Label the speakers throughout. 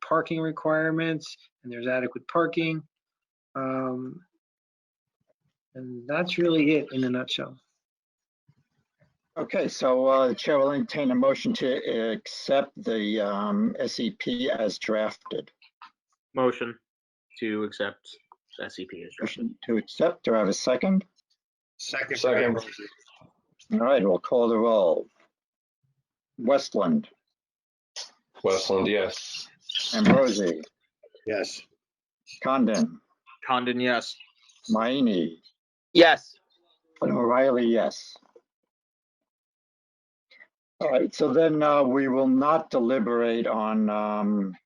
Speaker 1: parking requirements, and there's adequate parking. Um, And that's really it in a nutshell.
Speaker 2: Okay, so uh, the Chair will entertain a motion to accept the um, SEP as drafted.
Speaker 3: Motion to accept E SCP as drafted.
Speaker 2: Motion to accept, do I have a second?
Speaker 4: Second.
Speaker 5: Second.
Speaker 4: Ambrosi.
Speaker 2: All right, we'll call the roll. Westland,
Speaker 5: Westland, yes.
Speaker 2: Ambrosi,
Speaker 4: Yes.
Speaker 2: Condon,
Speaker 3: Condon, yes.
Speaker 2: Mayini,
Speaker 6: Yes.
Speaker 2: and O'Reilly, yes. All right, so then uh, we will not deliberate on um,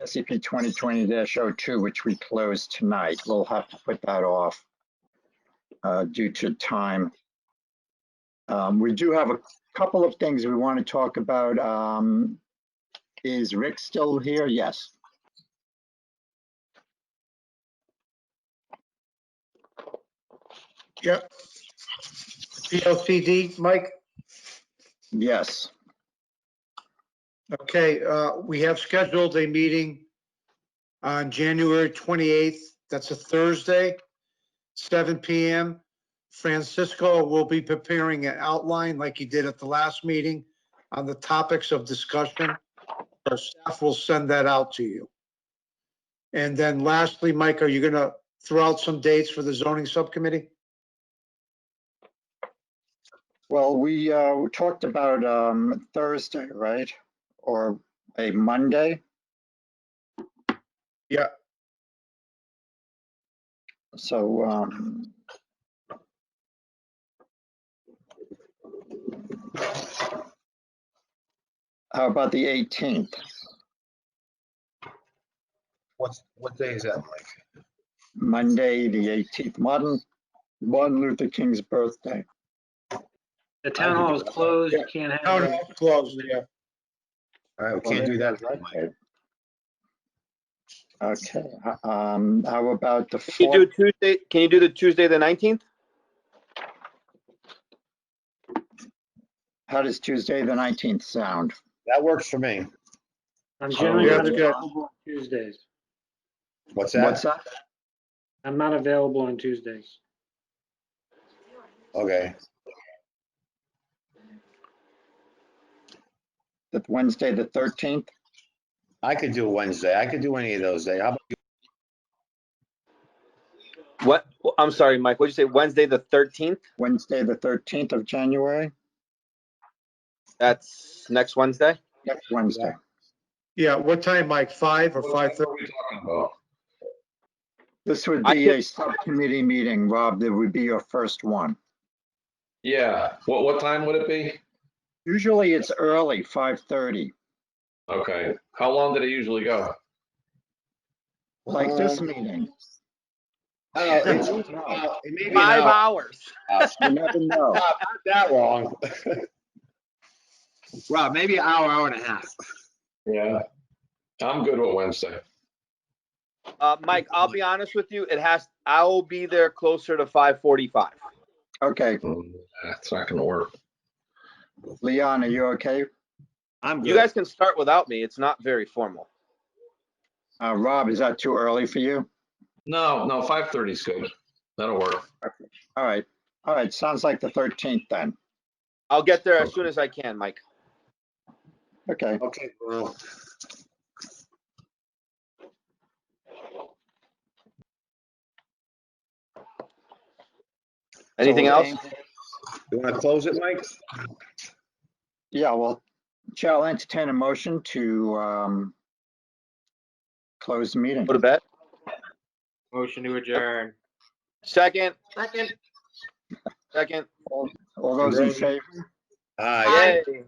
Speaker 2: E SCP 2020-02, which we closed tonight. We'll have to put that off uh, due to time. Um, We do have a couple of things we want to talk about. Um, Is Rick still here? Yes.
Speaker 7: PLCD, Mike?
Speaker 2: Yes.
Speaker 7: Okay, uh, we have scheduled a meeting on January 28th. That's a Thursday, 7 PM. Francisco will be preparing an outline like he did at the last meeting on the topics of discussion. Our staff will send that out to you. And then lastly, Mike, are you going to throw out some dates for the zoning subcommittee?
Speaker 2: Well, we uh, we talked about um, Thursday, right? Or a Monday?
Speaker 7: Yeah.
Speaker 2: So, um, how about the 18th?
Speaker 4: What's, what day is that, Mike?
Speaker 2: Monday, the 18th, Martin, Martin Luther King's birthday.
Speaker 1: The town hall is closed, you can't
Speaker 7: No,
Speaker 1: have,
Speaker 7: no,
Speaker 1: it.
Speaker 7: it's closed, yeah.
Speaker 4: All right, we can't do that, Mike.
Speaker 2: Okay. Okay, h- um, how about the
Speaker 6: Can you do
Speaker 2: fourth?
Speaker 6: Tuesday? Can you do the Tuesday, the nineteenth?
Speaker 2: How does Tuesday, the nineteenth sound?
Speaker 4: That works for me.
Speaker 1: I'm generally
Speaker 2: yeah,
Speaker 1: not
Speaker 7: yeah.
Speaker 1: available on Tuesdays.
Speaker 4: What's
Speaker 2: What's
Speaker 4: that?
Speaker 2: that?
Speaker 1: I'm not available on Tuesdays.
Speaker 4: Okay,
Speaker 2: The Wednesday, the thirteenth?
Speaker 4: I could do Wednesday. I could do any of those days. How about
Speaker 6: What? I'm sorry, Mike. What'd you say? Wednesday, the thirteenth?
Speaker 2: Wednesday, the thirteenth of January?
Speaker 6: That's next Wednesday.
Speaker 2: Next Wednesday.
Speaker 7: Yeah, what time, Mike? 5 or 5:30?
Speaker 2: This would
Speaker 6: I
Speaker 2: be
Speaker 6: can-
Speaker 2: a subcommittee meeting, Rob. That would be your first one.
Speaker 5: Yeah, what, what time would it be?
Speaker 2: Usually it's early, five thirty,
Speaker 5: Okay, how long did it usually go?
Speaker 2: like this
Speaker 4: Um,
Speaker 2: meeting.
Speaker 4: I don't know, it's- uh, it may be an hour.
Speaker 6: hours.
Speaker 2: You never know.
Speaker 4: Not That long. Rob, maybe an hour, hour and a half.
Speaker 5: Yeah. I'm good with Wednesday.
Speaker 6: Uh, Mike, I'll be honest with you. It has. I will be there closer to five forty-five.
Speaker 2: Okay,
Speaker 5: Mm, That's not gonna work.
Speaker 2: Leon, are you okay?
Speaker 4: I'm
Speaker 6: You
Speaker 4: good.
Speaker 6: guys can start without me. It's not very formal.
Speaker 2: Uh, Rob, is that too early for you?
Speaker 5: No, no, five thirty's good. That'll work.
Speaker 2: All right, all right, sounds like the thirteenth then.
Speaker 6: I'll get there as soon as I can, Mike.
Speaker 2: Okay.
Speaker 4: Okay, well,
Speaker 6: Anything
Speaker 2: So,
Speaker 4: uh,
Speaker 6: else?
Speaker 4: you want to close it, Mike?
Speaker 2: Yeah, well, Chair, I'll entertain a motion to um, close the meeting.
Speaker 6: Go to bed.
Speaker 3: Motion to adjourn.
Speaker 6: Second. Second. Second.
Speaker 2: All those in favor?
Speaker 4: Aye.
Speaker 6: Yay.